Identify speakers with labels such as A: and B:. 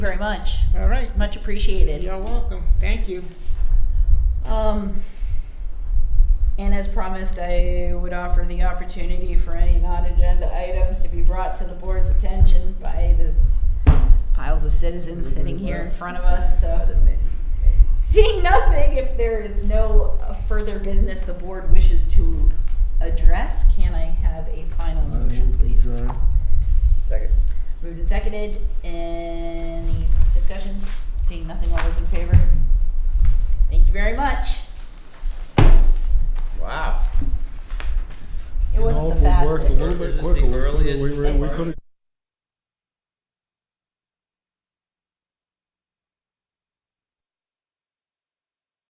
A: very much.
B: All right,
A: Much appreciated.
B: you're welcome. Thank you.
A: Um, and as promised, I would offer the opportunity for any non-agenda items to be brought to the board's attention by the piles of citizens sitting here in front of us, so. Seeing nothing, if there is no uh, further business the board wishes to address, can I have a final motion, please?
C: Second.
A: Moved and seconded, any discussion? Seeing nothing, all those in favor? Thank you very much.
C: Wow.
A: It wasn't the fastest.
C: little bit quicker. We were- we
D: We
C: could've